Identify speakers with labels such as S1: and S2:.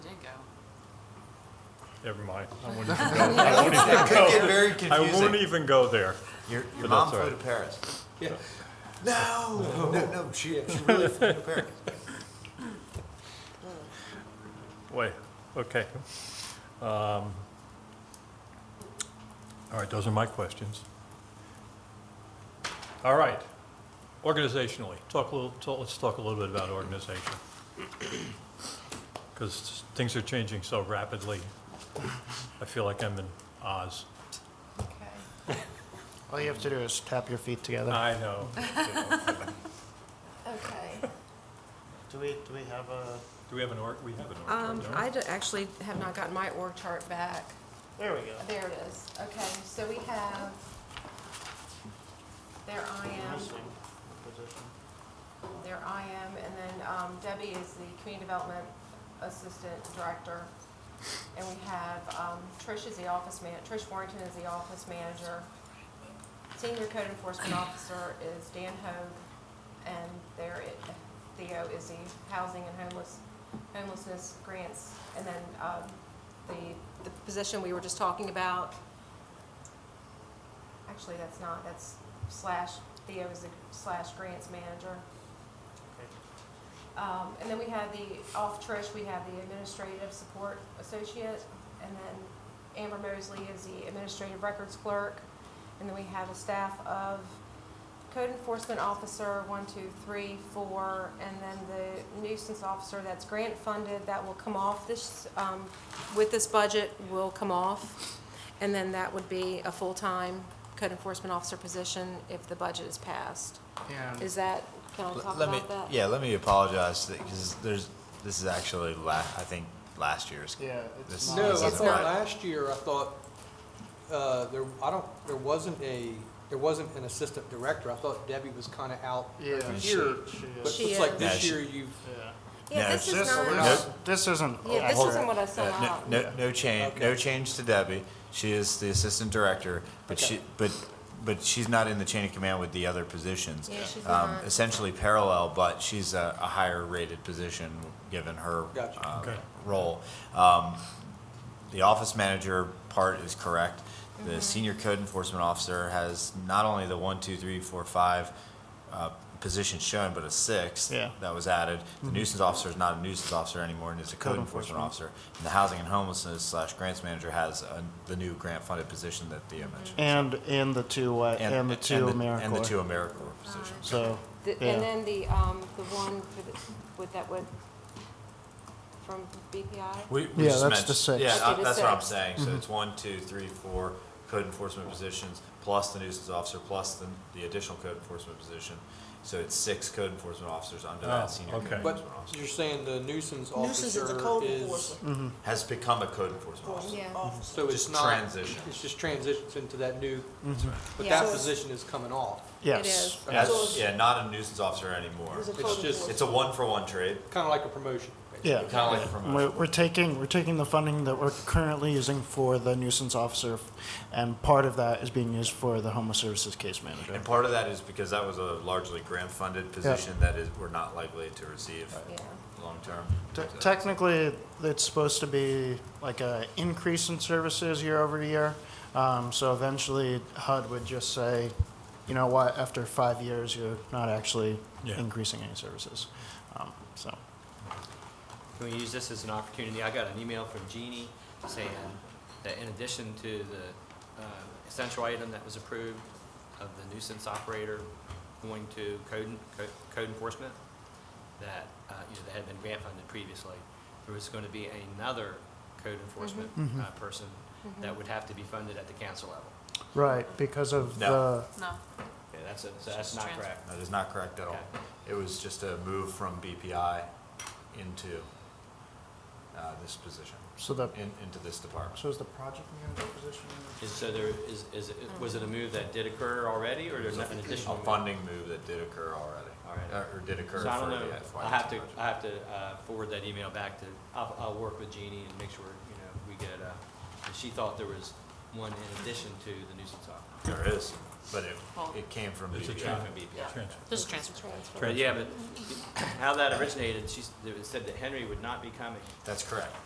S1: Never mind. I won't even go. I won't even
S2: Could get
S1: go.
S2: very
S1: I won't
S2: confusing.
S1: even go there.
S2: Your, your
S1: but
S2: mom
S1: that's all
S2: flew to
S1: right.
S2: Paris. No, no, no, she, she really flew to Paris.
S1: Wait, okay. Um, All right, those are my questions. All right, organizationally, talk a little, talk- let's talk a little bit about organization. Because things are changing so rapidly. I feel like I'm in Oz.
S3: All you have to do is tap your feet together.
S1: I know.
S4: Okay.
S3: Do we, do we have a,
S1: Do we have an org, we have an org chart,
S4: Um,
S1: don't we?
S4: I d- actually have not gotten my org chart back.
S3: there we go.
S4: There it is. Okay, so we have, there I am,
S3: Missing position.
S4: Um, there I am, and then, um, Debbie is the Community Development Assistant Director. And we have, um, Trish is the office man, Trish Warrington is the office manager. Senior Code Enforcement Officer is Dan Hoag, and there it, Theo is the Housing and Homeless, Homelessness Grants. And then, um, the, the position we were just talking about, actually, that's not, that's slash, Theo is the slash Grants Manager. Um, and then we have the, off Trish, we have the Administrative Support Associate, and then Amber Mosley is the Administrative Records Clerk. And then we have a staff of code enforcement officer, one, two, three, four, and then the nuisance officer that's grant funded, that will come off this, um, with this budget, will come off. And then that would be a full-time code enforcement officer position if the budget is passed.
S3: And
S4: Is that, can I talk
S2: Um, Let me,
S4: about that?
S2: yeah, let me apologize, because there's, this is actually la, I think, last year's.
S3: Yeah, it's
S2: This-
S3: not-
S5: No,
S2: this
S5: I
S2: isn't
S5: thought
S2: right.
S5: last year, I thought, uh, there, I don't, there wasn't a, there wasn't an assistant director. I thought Debbie was kind of out
S3: Yeah,
S5: every
S3: she-
S5: year.
S3: she
S5: But
S3: is.
S5: it
S4: She
S5: looks like
S4: is.
S2: Yeah,
S5: this
S2: she-
S5: year you've,
S3: yeah.
S4: Yeah,
S2: No,
S4: this
S2: it's
S4: is
S2: just-
S4: not.
S2: we're not-
S3: This isn't.
S4: Yeah, this
S2: Hold
S4: isn't
S2: it.
S4: what I saw
S2: Uh,
S4: out.
S2: No, no, no change, no
S5: Okay.
S2: change to Debbie. She is the assistant director, but
S5: Okay.
S2: she, but, but she's not in the chain of command with the other positions.
S4: Yeah, she's
S2: Um,
S4: not.
S2: Essentially parallel, but she's a, a higher rated position, given her,
S5: Gotcha.
S2: uh,
S1: Okay.
S2: role. Um, the office manager part is correct. The senior code enforcement officer has not only the one, two, three, four, five uh, positions shown, but a sixth
S3: Yeah.
S2: that was added. The nuisance officer is not a nuisance officer anymore, and is a code enforcement officer. And the housing and homelessness slash grants manager has uh, the new grant funded position that Thea mentioned.
S3: And, and the two, uh, and the two AmeriCorps.
S2: And the two AmeriCorps positions.
S3: So,
S4: The-
S3: yeah.
S4: And then the, um, the one for the, with that, with, from BPI?
S2: We,
S3: Yeah,
S2: just
S3: that's the
S2: mentioned-
S3: six.
S2: Yeah,
S4: Just
S2: I-
S4: do the
S2: that's what I'm
S4: six.
S2: saying. So it's one, two, three, four code enforcement positions, plus the nuisance officer, plus the, the additional code enforcement position. So it's six code enforcement officers under
S1: Oh,
S2: that senior code
S1: okay.
S2: enforcement
S5: but
S2: officer.
S5: you're saying the nuisance
S6: Nuisance
S5: officer
S6: is a code
S5: is,
S6: enforcement
S2: Has become a code enforcement officer.
S4: Yeah.
S6: officer.
S5: so it's
S2: Just Mm-hmm.
S5: not.
S2: transition.
S5: It's just transitions into that new, but
S4: Yeah.
S5: that position is coming off.
S4: It
S3: yes.
S4: is.
S6: So
S2: That's,
S6: it's-
S2: yeah, not a nuisance officer anymore.
S6: It's a code
S5: It's just-
S6: enforcement.
S2: It's a one-for-one trade.
S5: Kind of like a promotion. basically.
S3: Yeah.
S2: Kinda like a promotion.
S3: We're, we're taking, we're taking the funding that we're currently using for the nuisance officer, and part of that is being used for the homeless services case manager.
S2: And part of that is because that was a largely grant-funded position that is, we're not likely to receive
S4: Yeah.
S2: long-term.
S3: Te-
S2: So-
S3: Technically, it's supposed to be like a increase in services year over year. Um, so eventually HUD would just say, you know what, after five years, you're not actually
S1: Yeah.
S3: increasing any services. Um, so,
S7: Can we use this as an opportunity? I got an email from Jeannie saying that in addition to the uh, essential item that was approved of the nuisance operator going to code, en- co- code enforcement, that, uh, you know, that had been grant funded previously, there was going to be another code enforcement uh, person that would have to be funded at the council level.
S3: right, because of
S2: No.
S3: the,
S6: No.
S7: Yeah, that's, a- so that's not
S6: Transfer.
S7: correct.
S2: That is not correct at all. It was just a move from BPI into uh, this position,
S3: so the,
S2: in- into this department.
S3: so is the project manager position?
S7: Is, so there, is, is, it- was it a move that did occur already, or there's an additional?
S2: A
S7: move?
S2: funding move that did occur already,
S7: All right.
S2: uh, or did occur for
S7: So I don't know,
S2: the FY.
S7: I have to,
S2: budget.
S7: I have to uh, forward that email back to, I'll, I'll work with Jeannie and make sure, you know, we get, uh, and she thought there was one in addition to the nuisance officer.
S2: There is, but it,
S6: Well-
S2: it came from
S1: It's a
S2: BPI.
S1: Yeah.
S7: From BPI.
S1: Transfer.
S6: This is transfer.
S1: Transfer.
S7: But yeah, but how that originated, she, it said that Henry would not be coming.
S2: That's correct.